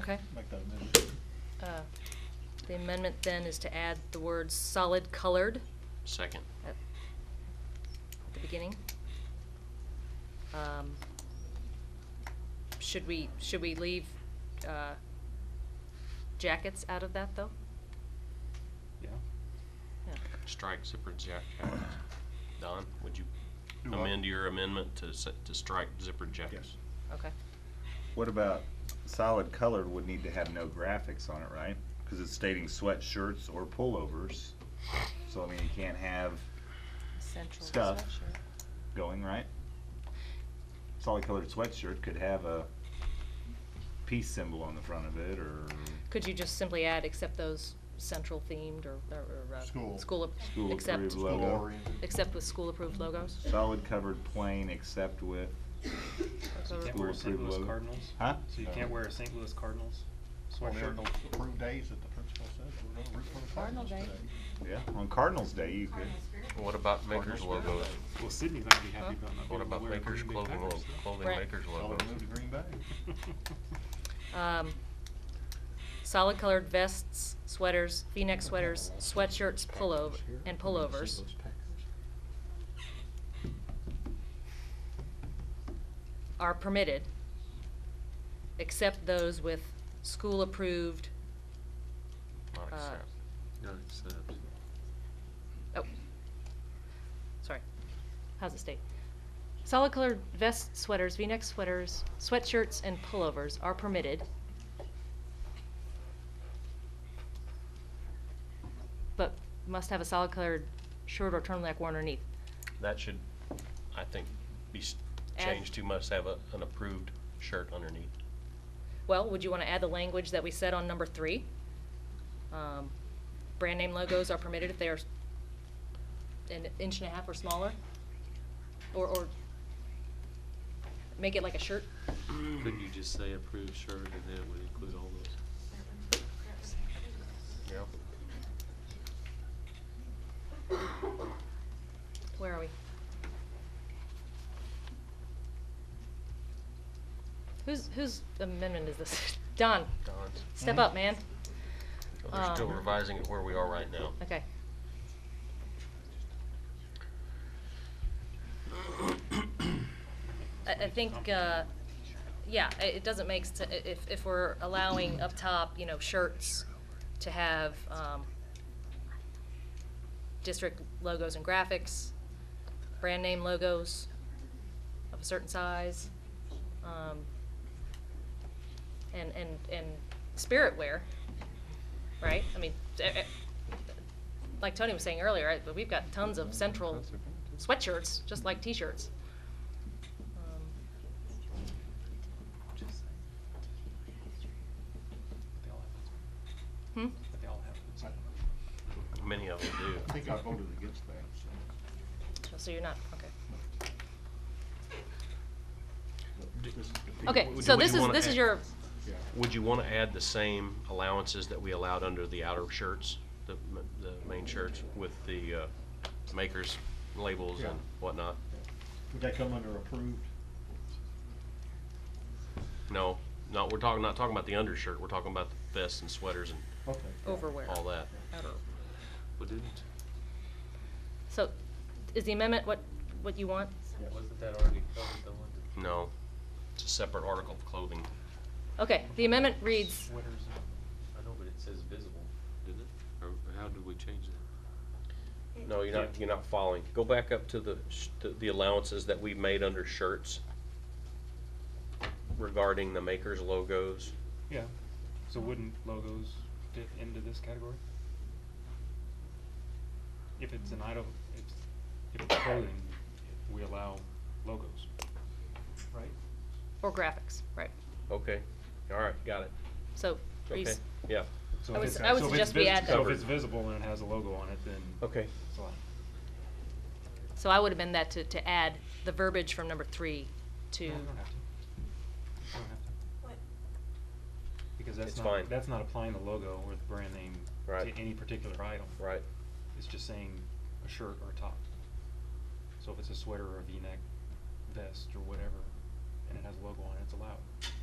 Okay. Make that amendment. Uh, The amendment then is to add the words solid colored Second. at the beginning. Um, Should we, should we leave uh, jackets out of that, though? Yeah. Yeah. Strike zipper jack jackets. Don, would you Do what? amend your amendment to, s- to strike zipper jackets? Yes. Okay. What about solid colored would need to have no graphics on it, right? Because it's stating sweatshirts or pullovers. So I mean, you can't have Central Stuff. going, right? Solid colored sweatshirt could have a peace symbol on the front of it or Could you just simply add, except those central themed or, or, uh, School. School, ap- School except, approved logo. Goal-oriented. except with school approved logos? solid covered plain except with, So you can't School wear a St. approved Louis logo. Cardinals? huh? So you No. can't wear a St. Louis Cardinals Well, there are sweatshirt? those approved days that the principal says we're gonna root for the Cardinal Cardinals day. today. Yeah, on Cardinals Day you could. What about makers Cardinals logos? Well, Sydney's not gonna be Huh? happy about not being What able about to wear a makers Green Bay clothing, Packers. lo- clothing Right. makers Tell them logos? to move to Green Bay. Um, solid colored vests, sweaters, V-neck sweaters, sweatshirts, pullover, and pullovers. Are permitted, except those with school-approved, Not Uh, accept. oh, sorry, how's it state? Solid colored vests, sweaters, V-neck sweaters, sweatshirts, and pullovers are permitted. But must have a solid colored shirt or turtleneck worn underneath. That should, I think, be s- Add- changed to must have a, an approved shirt underneath. Well, would you want to add the language that we said on number three? Um, Brand name logos are permitted if they are s- an inch and a half or smaller? Or, or make it like a shirt? Couldn't you just say approved shirt and that would include all those? Yeah. Where are we? Whose, whose amendment is this? Don, Don's. step up, man. Oh, They're still Um, revising it where we are right now. Okay. I, I think, uh, yeah, i- it doesn't make, s- i- if, if we're allowing up top, you know, shirts to have, um, district logos and graphics, brand name logos of a certain size, um, and, and, and spirit wear, right? I mean, e- e- like Tony was saying earlier, right, but we've got tons of central sweatshirts, just like t-shirts. Um, They Hmm? all have those. They all have those. Many of them I do. think I voted against that, so. Oh, So you're not, okay. but this is good. Okay, do so we this is, wanna this is add- your, Yeah. Would you want to add the same allowances that we allowed under the outer shirts, the, m- the main shirts with the uh, makers labels Yeah. and whatnot? Would that come under approved? No, no, we're talking, not talking about the undershirt, we're talking about the vests and sweaters and Okay. Overwear. all that. Well, didn't, so is the amendment what, what you want? Yeah. wasn't that already covered, the one? No, it's a separate article of clothing. Okay, the amendment reads, Sweaters and- I know, but it says visible, didn't it? Or or how did we change that? No, you're not, you're not following. Go back up to the, sh- to the allowances that we made under shirts regarding the makers logos. Yeah, so wouldn't logos fit into this category? If it's an item, if, if it's clothing, we allow logos, right? or graphics, right? Okay, all right, got it. So, Okay, Reese, yeah, So I if would it's- s- I would so if it's suggest we vis- add So that. if it's visible and it has a logo on it, then. okay. it's allowed. so I would amend that to, to add the verbiage from number three to, No, we don't have to. We don't have to. Because that's It's not, fine. that's not applying the logo or the brand name Right. to any particular item. Right. It's just saying a shirt or a top. So if it's a sweater or a V-neck vest or whatever, and it has a logo on it, it's allowed.